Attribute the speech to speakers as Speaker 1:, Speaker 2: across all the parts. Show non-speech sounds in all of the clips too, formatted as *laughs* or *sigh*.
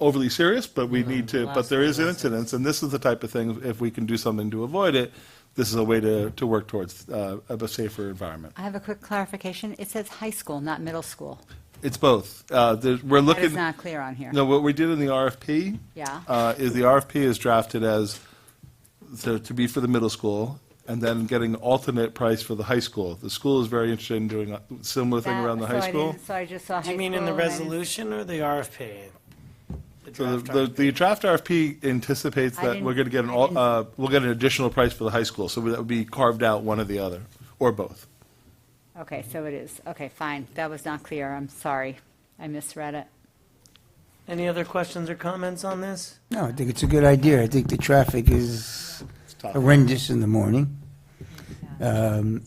Speaker 1: overly serious, but we need to, but
Speaker 2: last
Speaker 1: there
Speaker 2: one
Speaker 1: is incidents, and this is the type of thing, if we can do something to avoid it, this is a way to, to work towards uh, of a safer environment.
Speaker 2: I have a quick clarification. It says high school, not middle school.
Speaker 1: It's both. Uh, there's- We're
Speaker 2: That
Speaker 1: looking.
Speaker 2: is not clear on here.
Speaker 1: No, what we did in the RFP.
Speaker 2: Yeah.
Speaker 1: uh, Is the RFP is drafted as, so to be for the middle school, and then getting alternate price for the high school. The school is very interested in doing a similar thing
Speaker 2: That-
Speaker 1: around the
Speaker 2: so
Speaker 1: high
Speaker 2: I
Speaker 1: school.
Speaker 2: didn't- So I just saw high
Speaker 3: Do
Speaker 2: school.
Speaker 3: you mean in the
Speaker 2: and I didn't-
Speaker 3: resolution or the RFP? The
Speaker 1: So
Speaker 3: draft
Speaker 1: the, the-
Speaker 3: RFP.
Speaker 1: the draft RFP anticipates
Speaker 2: I
Speaker 1: that
Speaker 2: didn't-
Speaker 1: we're gonna get an,
Speaker 2: I
Speaker 1: al-
Speaker 2: didn't-
Speaker 1: uh, we'll get an additional price for the high school, so that would be carved out one or the other, or both.
Speaker 2: Okay, so it is. Okay, fine. That was not clear. I'm sorry. I misread it.
Speaker 3: Any other questions or comments on this?
Speaker 4: No, I think it's a good idea. I think the traffic is
Speaker 1: tough.
Speaker 4: horrendous in the morning. Um,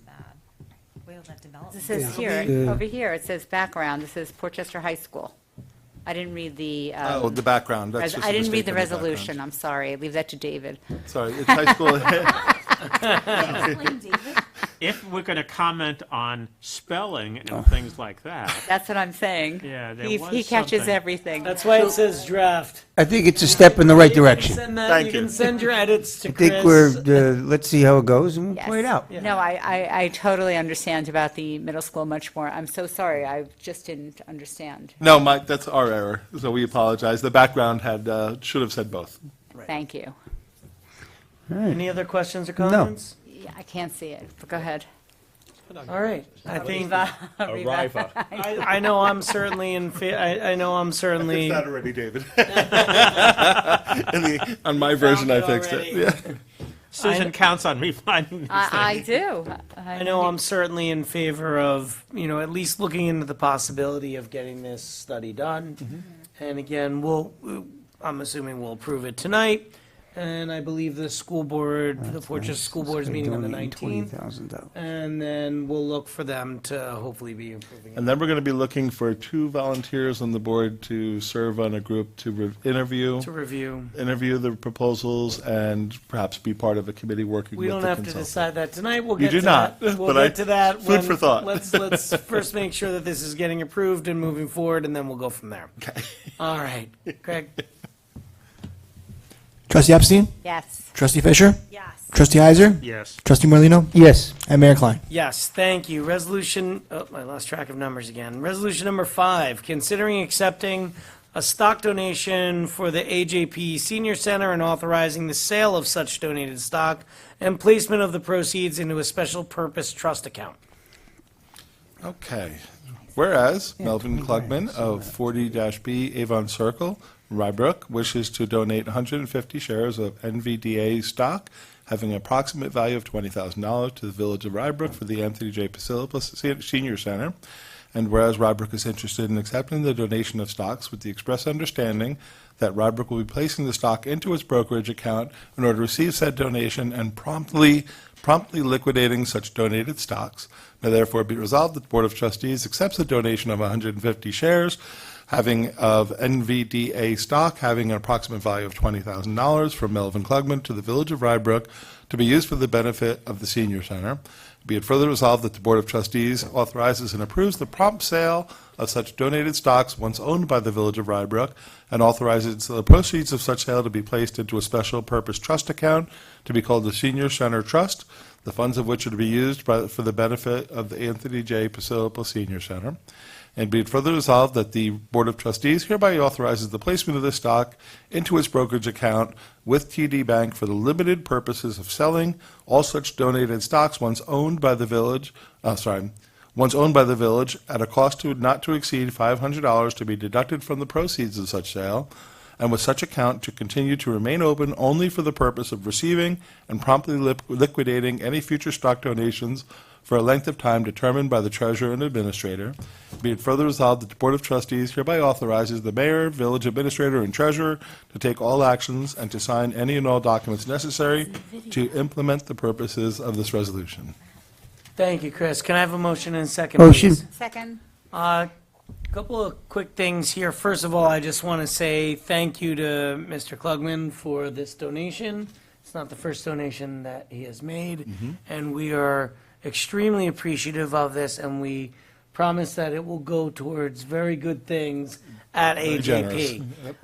Speaker 5: Where will that develop?
Speaker 2: This is
Speaker 4: Yeah.
Speaker 2: here,
Speaker 4: Yeah.
Speaker 2: over here, it says background. This is Portchester High School. I didn't read the,
Speaker 1: Oh,
Speaker 2: um,
Speaker 1: the background, that's
Speaker 2: res-
Speaker 1: just a
Speaker 2: I didn't
Speaker 1: mistake
Speaker 2: read the
Speaker 1: on background.
Speaker 2: resolution. I'm sorry. Leave that to David.
Speaker 1: Sorry, it's high school. *laughs*
Speaker 5: Explain, David.
Speaker 6: if we're going to comment on spelling and things like that,
Speaker 2: That's what I'm saying.
Speaker 6: Yeah, there
Speaker 2: He-
Speaker 6: was
Speaker 2: He catches
Speaker 6: something.
Speaker 2: everything.
Speaker 3: That's why it says draft.
Speaker 4: I think it's a step in the right
Speaker 3: You can
Speaker 4: direction.
Speaker 3: send that-
Speaker 1: Thank
Speaker 3: You can
Speaker 1: you.
Speaker 3: send your edits to
Speaker 4: I
Speaker 3: Chris.
Speaker 4: think we're, uh, let's see how it goes and we'll
Speaker 2: Yes.
Speaker 4: play it out.
Speaker 2: No, I, I, I totally understand about the middle school much more. I'm so sorry. I just didn't understand.
Speaker 1: No, Mike, that's our error, so we apologize. The background had, uh, should have said both.
Speaker 2: Thank you.
Speaker 3: Any other questions or comments?
Speaker 2: Yeah, I can't see it, but go ahead. *laughs*
Speaker 3: All right, I think,
Speaker 7: Arriva.
Speaker 1: *laughs*
Speaker 3: I, I know I'm certainly in, fa- I, I know I'm certainly.
Speaker 1: already, *laughs* David. On my version, I fixed it. Yeah.
Speaker 6: Susan counts on me *laughs* finding these things.
Speaker 2: Uh, I, I do. Uh,
Speaker 3: I know I'm certainly in favor of, you know, at least looking into the possibility of getting this study done.
Speaker 1: Mm-hmm.
Speaker 3: And again, we'll, I'm assuming we'll approve it tonight, and I believe the school board, the Portchester School Board's meeting on the nineteenth,
Speaker 4: $20,000.
Speaker 3: and then we'll look for them to hopefully be improving. it.
Speaker 1: And then we're going to be looking for two volunteers on the board to serve on a group to re- interview,
Speaker 3: To review,
Speaker 1: interview the proposals, and perhaps be part of a committee working
Speaker 3: we
Speaker 1: with
Speaker 3: don't
Speaker 1: the
Speaker 3: have to
Speaker 1: consultant.
Speaker 3: decide that tonight, we'll
Speaker 1: You
Speaker 3: get
Speaker 1: do
Speaker 3: to that.
Speaker 1: not,
Speaker 3: We'll
Speaker 1: but I-
Speaker 3: get to that.
Speaker 1: food
Speaker 3: when-
Speaker 1: for thought.
Speaker 3: Let's,
Speaker 1: *laughs*
Speaker 3: let's first make sure that this is getting approved and moving forward, and then we'll go from there. Okay. All right, Greg,
Speaker 1: *laughs*
Speaker 8: Trustee Epstein?
Speaker 2: Yes.
Speaker 8: Trustee Fisher?
Speaker 5: Yes.
Speaker 8: Trustee Heiser?
Speaker 6: Yes.
Speaker 8: Trustee Morlino,
Speaker 4: Yes,
Speaker 8: And Mayor Klein.
Speaker 3: Yes, thank you. Resolution, oh, I lost track of numbers again. Resolution number five, considering accepting a stock donation for the AJP Senior Center and authorizing the sale of such donated stock and placement of the proceeds into a special purpose trust account.
Speaker 1: Okay. Whereas Melvin Klugman of 40-B Avon Circle, Rybrook, wishes to donate 150 shares of NVDA stock having an approximate value of $20,000 to the Village of Rybrook for the Anthony J. Pasilipos Se- Senior Center. And whereas Rybrook is interested in accepting the donation of stocks with the express understanding that Rybrook will be placing the stock into its brokerage account in order to receive said donation and promptly, promptly liquidating such donated stocks. Now therefore be resolved that the Board of Trustees accepts the donation of 150 shares having of NVDA stock having an approximate value of $20,000 from Melvin Klugman to the Village of Rybrook to be used for the benefit of the senior center. Be it further resolved that the Board of Trustees authorizes and approves the prompt sale of such donated stocks once owned by the Village of Rybrook and authorizes the proceeds of such sale to be placed into a special purpose trust account to be called the Senior Center Trust, the funds of which are to be used by, for the benefit of the Anthony J. Pasilipal Senior Center. And be it further resolved that the Board of Trustees hereby authorizes the placement of this stock into its brokerage account with TD Bank for the limited purposes of selling all such donated stocks once owned by the village, uh, sorry, once owned by the village at a cost to not to exceed $500 to be deducted from the proceeds of such sale, and with such account to continue to remain open only for the purpose of receiving and promptly lip- liquidating any future stock donations for a length of time determined by the treasurer and administrator. Be it further resolved that the Board of Trustees hereby authorizes the mayor, village administrator, and treasurer to take all actions and to sign any and all documents necessary to implement the purposes of this resolution.
Speaker 3: Thank you, Chris. Can I have a motion and a second,
Speaker 4: Motion.
Speaker 3: please?
Speaker 2: Second?
Speaker 3: A Uh, couple of quick things here. First of all, I just want to say thank you to Mr. Klugman for this donation. It's not the first donation
Speaker 1: Mm-hmm.
Speaker 3: that he has made, and we are extremely appreciative of this, and we promise that it will go towards very good things at
Speaker 1: Very generous.
Speaker 3: AJP.